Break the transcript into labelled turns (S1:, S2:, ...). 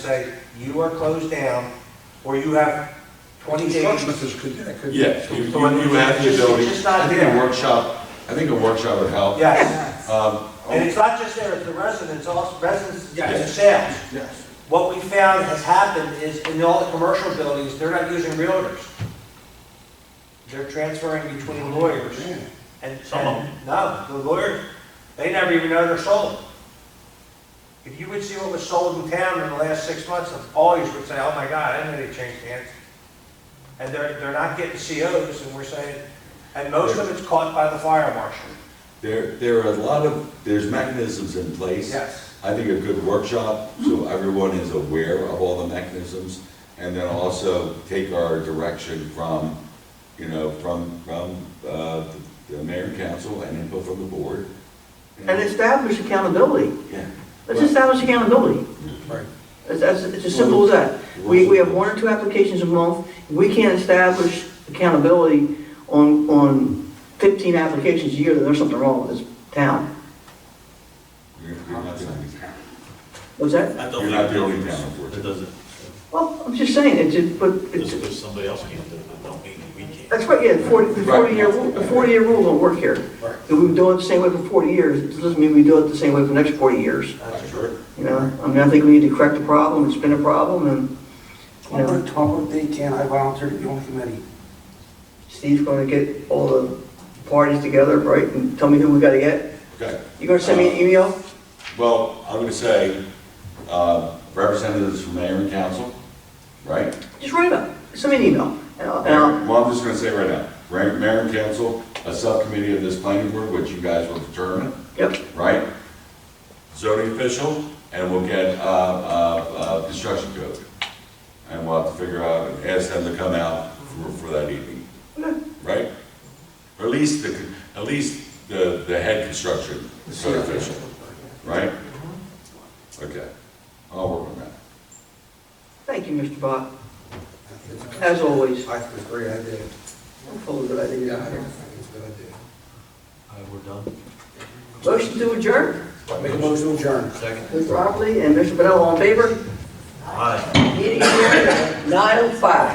S1: say, you are closed down, or you have 20 days.
S2: Construction is, could, that could.
S3: Yes, you, you you have the
S1: Just-
S3: ability,
S1: just not
S3: I think a
S1: there.
S3: workshop, I think a workshop would help.
S1: Yes,
S3: Um,
S1: and it's not just there, it's the residents, also residents,
S2: Yeah.
S1: it's sales.
S2: Yes.
S1: What we found has happened is in all the commercial buildings, they're not using realtors. They're transferring between lawyers and.
S4: Some of them.
S1: and- No, the lawyer, they never even know they're sold. If you would see what was sold in town in the last six months, always would say, oh my God, I know they changed hands. And they're, they're not getting COs and we're saying, and most of it's caught by the fire marshal.
S3: There, there are a lot of, there's mechanisms in place.
S1: Yes.
S3: I think a good workshop, so everyone is aware of all the mechanisms, and then also take our direction from, you know, from, from, uh, the mayor and council and input from the board.
S5: And establish accountability.
S3: Yeah.
S5: Let's establish accountability.
S2: Right.
S5: It's, it's it's as simple as that. We, we have one or two applications a month. We can't establish accountability on, on fifteen applications a year, then there's something wrong with this town.
S3: You're you're not the only town.
S5: What's that?
S4: I don't
S3: You're not
S4: think
S3: the only town,
S4: it does. It
S3: unfortunately.
S4: doesn't,
S5: Well, I'm just saying, it's, it- but,
S4: just
S5: it's,
S4: because somebody else can't do it, don't mean that we can't.
S5: that's right, yeah, the forty, the forty-year, the forty-year rule don't work here.
S2: Right.
S5: If we do it the same way for forty years, it doesn't mean we do it the same way for the next forty years.
S3: Sure.
S5: You know, I mean, I think we need to correct the problem, it's been a problem, and, you know.
S6: Talbot, Talbot Day Camp, I volunteer to be on the committee.
S5: Steve's gonna get all the parties together, right, and tell me who we gotta get.
S3: Okay.
S5: You gonna send me an email?
S3: Well, I'm gonna say, uh, representatives from mayor and council, right?
S5: Just write up, send me an email. And I'll, and I'll,
S3: Well, I'm just gonna say right now, right, mayor and council, a subcommittee of this planning board, which you guys will determine,
S5: yep,
S3: right? Zoning official, and we'll get, uh, uh, uh, construction code. And we'll have to figure out, and ask them to come out for, for that evening, right? Or at least the, at least the, the head construction code official, right? Okay, I'll work on that.
S5: thank you, Mr. Bach,
S2: I
S5: as always.
S2: think it's a great idea.
S5: I'm full of good
S2: Yeah, I think
S5: ideas.
S2: it's a good idea.
S4: All right, we're done.
S5: Motion to adjourn,
S2: Make a motion to adjourn.
S5: Mr. Oakley and Mr. Bell, all in favor?
S4: Aye.
S5: Meeting adjourned at 9:05.